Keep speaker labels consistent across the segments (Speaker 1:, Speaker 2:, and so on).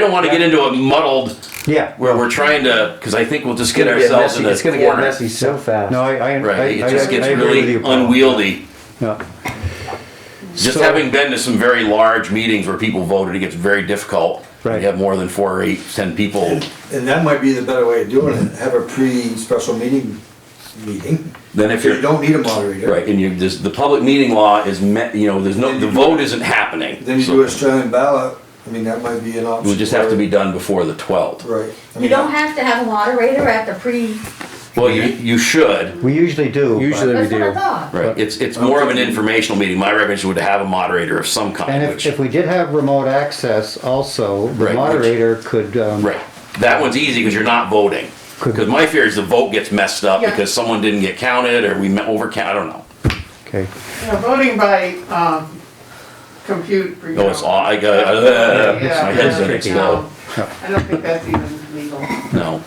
Speaker 1: I don't want to get into a muddled
Speaker 2: Yeah.
Speaker 1: where we're trying to, because I think we'll just get
Speaker 3: It's gonna get
Speaker 1: ourselves
Speaker 3: messy.
Speaker 1: in a
Speaker 3: It's gonna get
Speaker 1: corner.
Speaker 3: messy so fast.
Speaker 2: No, I, I, I,
Speaker 1: Right,
Speaker 2: I-
Speaker 1: it just
Speaker 2: I
Speaker 1: gets
Speaker 2: agree with
Speaker 1: really
Speaker 2: you, Paul.
Speaker 1: unwieldy.
Speaker 2: Yeah.
Speaker 1: Just
Speaker 2: So-
Speaker 1: having been to some very large meetings where people voted, it gets very difficult.
Speaker 2: Right.
Speaker 1: You have more than four or eight, ten people,
Speaker 4: And that might be the better way of doing it, have a pre-special meeting, meeting.
Speaker 1: Then if
Speaker 4: You
Speaker 1: you're-
Speaker 4: don't need a moderator.
Speaker 1: right, and you, this, the public meeting law is met, you know, there's no, the vote isn't happening.
Speaker 4: Then you
Speaker 1: So
Speaker 4: do Australian ballot, I mean, that might be
Speaker 1: It
Speaker 4: an option.
Speaker 1: would just have to be
Speaker 4: where-
Speaker 1: done before the twelfth.
Speaker 4: Right. I
Speaker 5: You
Speaker 4: mean,
Speaker 5: don't have to have a moderator at the pre,
Speaker 1: Well, you, you should,
Speaker 2: We usually do. but-
Speaker 3: Usually-
Speaker 5: that's what
Speaker 3: do.
Speaker 5: I thought.
Speaker 1: right, it's, it's more of an informational meeting, my recommendation would have a moderator of some
Speaker 2: And
Speaker 1: kind,
Speaker 2: if,
Speaker 1: which,
Speaker 2: if we did have remote access also,
Speaker 1: Right,
Speaker 2: the
Speaker 1: which-
Speaker 2: moderator could, um,
Speaker 1: right. That one's easy, because you're not voting.
Speaker 2: Could-
Speaker 1: Because my fear is the vote gets messed up
Speaker 5: Yeah.
Speaker 1: because someone didn't get counted, or we me- overcount, I don't know.
Speaker 2: okay.
Speaker 6: You know, voting by, um, compute. you
Speaker 1: No, Oh, it's
Speaker 6: know.
Speaker 1: all, I got, uh, my head's gonna
Speaker 6: Yeah,
Speaker 1: explode.
Speaker 6: no, I don't think that's even legal.
Speaker 1: No.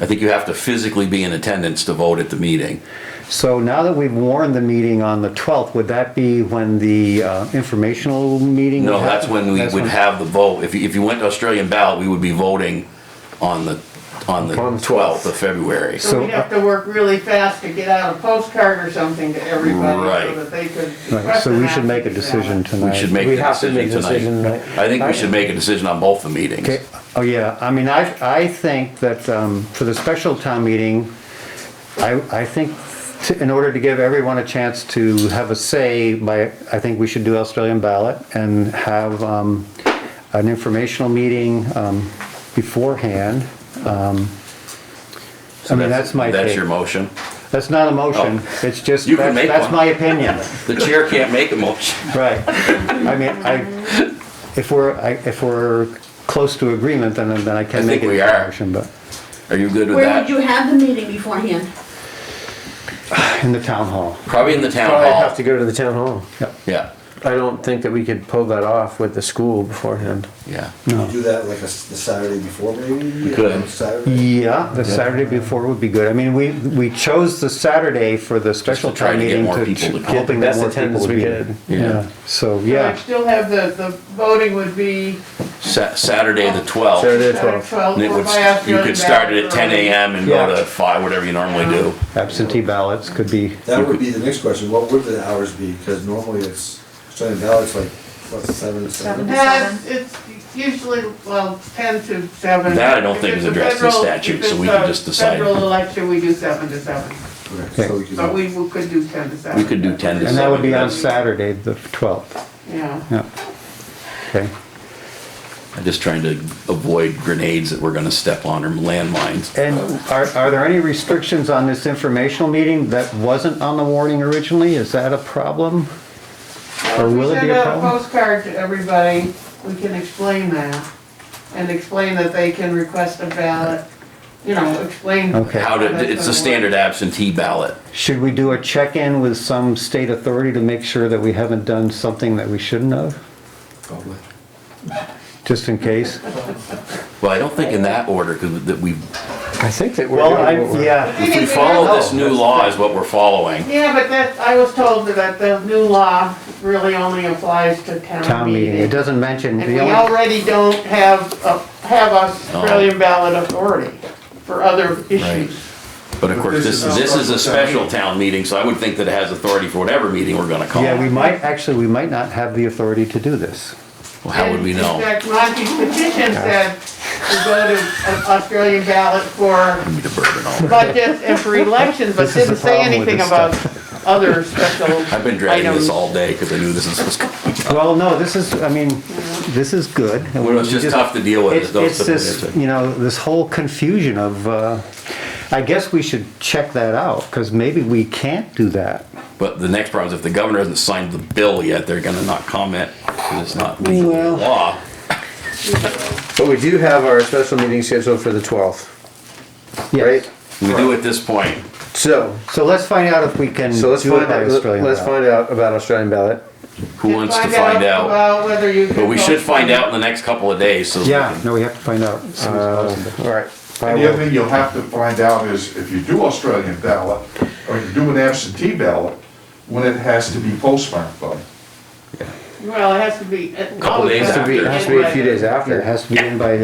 Speaker 1: I think you have to physically be in attendance to vote at the meeting.
Speaker 2: So now that we've warned the meeting on the 12th, would that be when the uh, informational meeting?
Speaker 1: No,
Speaker 2: would
Speaker 1: that's
Speaker 2: happen?
Speaker 1: when we
Speaker 2: That's
Speaker 1: would
Speaker 2: when-
Speaker 1: have the vote. If you, if you went to Australian ballot, we would be voting on the, on the
Speaker 3: On the
Speaker 1: 12th of February.
Speaker 6: So we'd have to work really fast to get out a postcard or something to everybody
Speaker 1: Right.
Speaker 6: so that they could.
Speaker 2: Right,
Speaker 6: request
Speaker 2: So we
Speaker 6: an
Speaker 2: should make a
Speaker 6: absentee
Speaker 2: decision
Speaker 6: ballot.
Speaker 2: tonight.
Speaker 1: We should make
Speaker 3: We
Speaker 1: the
Speaker 3: have to
Speaker 1: decision
Speaker 3: make a decision
Speaker 1: tonight.
Speaker 3: tonight.
Speaker 1: I think we should make a decision on both the meetings.
Speaker 2: Okay, oh yeah, I mean, I, I think that um, for the special town meeting, I, I think to- in order to give everyone a chance to have a say by, I think we should do Australian ballot and have um, an informational meeting um, beforehand. Um, I mean, that's my
Speaker 1: That's
Speaker 2: take.
Speaker 1: your motion.
Speaker 2: That's not a motion, it's just,
Speaker 1: You can
Speaker 2: that's
Speaker 1: make
Speaker 2: that's
Speaker 1: one.
Speaker 2: my opinion.
Speaker 1: The chair can't make a motion.
Speaker 2: Right. I mean, I, if we're, I- if we're close to agreement, then, then I
Speaker 1: I
Speaker 2: can make
Speaker 1: think
Speaker 2: it
Speaker 1: we
Speaker 2: a
Speaker 1: are.
Speaker 2: motion, but
Speaker 1: Are you good with
Speaker 5: Where would
Speaker 1: that?
Speaker 5: you have the meeting beforehand?
Speaker 2: in the town hall.
Speaker 1: Probably in the town
Speaker 3: Probably have to
Speaker 1: hall.
Speaker 3: go to the town hall.
Speaker 1: Yeah,
Speaker 3: I don't think that we could pull that off with the school beforehand.
Speaker 1: yeah.
Speaker 4: you Do that like a s the Saturday before maybe? You
Speaker 1: could.
Speaker 4: Saturday.
Speaker 2: Yeah, the Saturday before would be good. I mean, we, we chose the Saturday for the special
Speaker 1: to try
Speaker 2: town
Speaker 1: to get
Speaker 2: meeting
Speaker 1: more
Speaker 2: to,
Speaker 1: people to
Speaker 2: to-
Speaker 1: come.
Speaker 2: hoping
Speaker 3: Best
Speaker 2: that more people
Speaker 3: attendance
Speaker 2: would be
Speaker 3: we get.
Speaker 2: there.
Speaker 1: Yeah.
Speaker 2: Yeah, so,
Speaker 6: So I'd
Speaker 2: yeah,
Speaker 6: still have the, the voting would be
Speaker 1: Sa- Saturday the twelfth.
Speaker 3: Saturday the
Speaker 6: Saturday
Speaker 3: 12th.
Speaker 6: twelve
Speaker 1: And it
Speaker 6: or
Speaker 1: would,
Speaker 6: by afternoon.
Speaker 1: you could start it at ten AM and go
Speaker 2: Yeah.
Speaker 1: to five, whatever you normally do.
Speaker 2: absentee ballots could be,
Speaker 4: That would be the next question, what would the hours be? Because normally it's, Australian ballot's like, what, seven,
Speaker 5: Seven.
Speaker 4: seven?
Speaker 6: Yeah, it's it's usually, well, ten to seven.
Speaker 1: That I don't
Speaker 6: If
Speaker 1: think is
Speaker 6: it's a
Speaker 1: addressed in
Speaker 6: federal-
Speaker 1: statute,
Speaker 6: if
Speaker 1: so
Speaker 6: it's
Speaker 1: we can
Speaker 6: a
Speaker 1: just decide.
Speaker 6: Federal election, we do seven to seven,
Speaker 4: Okay, so we could-
Speaker 6: but we we could do ten to seven.
Speaker 1: We could do ten to
Speaker 2: and that would be on
Speaker 1: seven.
Speaker 2: Saturday, the 12th.
Speaker 6: Yeah.
Speaker 2: Yeah. Okay,
Speaker 1: I'm just trying to avoid grenades that we're gonna step on or landmines.
Speaker 2: and are, are there any restrictions on this informational meeting that wasn't on the warning originally? Is that a problem?
Speaker 6: Well, if
Speaker 2: will it be a
Speaker 6: We send out
Speaker 2: problem?
Speaker 6: a postcard to everybody, we can explain that, and explain that they can request a ballot, you know, explain.
Speaker 2: Okay.
Speaker 1: How to, it's a standard absentee ballot.
Speaker 2: Should we do a check-in with some state authority to make sure that we haven't done something that we shouldn't have,
Speaker 4: Probably.
Speaker 2: just in case?
Speaker 1: Well, I don't think in that order, cause that we,
Speaker 3: I think that we're
Speaker 2: Well,
Speaker 3: doing
Speaker 2: I,
Speaker 3: what we're.
Speaker 2: yeah,
Speaker 1: if we follow this new law is what we're following.
Speaker 6: Yeah, but that, I was told that the new law really only applies to
Speaker 2: town meeting, it doesn't mention,
Speaker 6: And
Speaker 2: the
Speaker 6: we
Speaker 2: only,
Speaker 6: already don't have, a- have Australian ballot authority for other issues.
Speaker 1: But of course, this, this is a special town meeting, so I would think that it has authority for whatever meeting we're gonna call.
Speaker 2: yeah, we might, actually, we might not have the authority to do this.
Speaker 1: Well, how would we know?
Speaker 6: In fact, Monty's petition said to go to an Australian ballot for
Speaker 1: Give me the bourbon all.
Speaker 6: budgets and for elections, but
Speaker 2: This is the
Speaker 6: didn't say
Speaker 2: problem with
Speaker 6: anything
Speaker 2: this
Speaker 6: about other special items.
Speaker 1: I've been dragging this all day, cause I knew this was coming.
Speaker 2: Well, no, this is, I mean, this is good. and
Speaker 1: Well, it's
Speaker 2: we
Speaker 1: just tough to deal with,
Speaker 2: It's,
Speaker 1: those
Speaker 2: it's this,
Speaker 1: situations.
Speaker 2: you know, this whole confusion of, uh, I guess we should check that out, because maybe we can't do that.
Speaker 1: But the next problem is if the governor hasn't signed the bill yet, they're gonna not comment, because it's not legally
Speaker 2: Well-
Speaker 1: law.
Speaker 3: But we do have our special meeting scheduled for the 12th,
Speaker 2: Yes.
Speaker 3: right?
Speaker 1: We do at this point.
Speaker 3: So,
Speaker 2: So let's find out if we can
Speaker 3: so
Speaker 2: do
Speaker 3: let's
Speaker 2: it
Speaker 3: find
Speaker 2: by
Speaker 3: out,
Speaker 2: Australian
Speaker 3: let's
Speaker 2: ballot.
Speaker 3: find out about Australian ballot.
Speaker 1: Who
Speaker 6: And
Speaker 1: wants to find out?
Speaker 6: About whether you.
Speaker 1: But we
Speaker 6: can
Speaker 1: should
Speaker 6: vote.
Speaker 1: find out in the next couple of days, so. that we
Speaker 2: Yeah,
Speaker 1: can-
Speaker 2: no, we have to find out as soon as possible.
Speaker 3: All right. I
Speaker 7: And the other
Speaker 3: will.
Speaker 7: thing you'll have to find out is if you do Australian ballot, or you do an absentee ballot, when it has to be postmarked by.
Speaker 1: Well, it has to be. it
Speaker 8: Couple
Speaker 1: always
Speaker 8: days
Speaker 1: has to
Speaker 8: after.
Speaker 1: be
Speaker 6: It has to be a
Speaker 1: in
Speaker 6: few
Speaker 1: by-
Speaker 6: days after.
Speaker 3: It has to be in by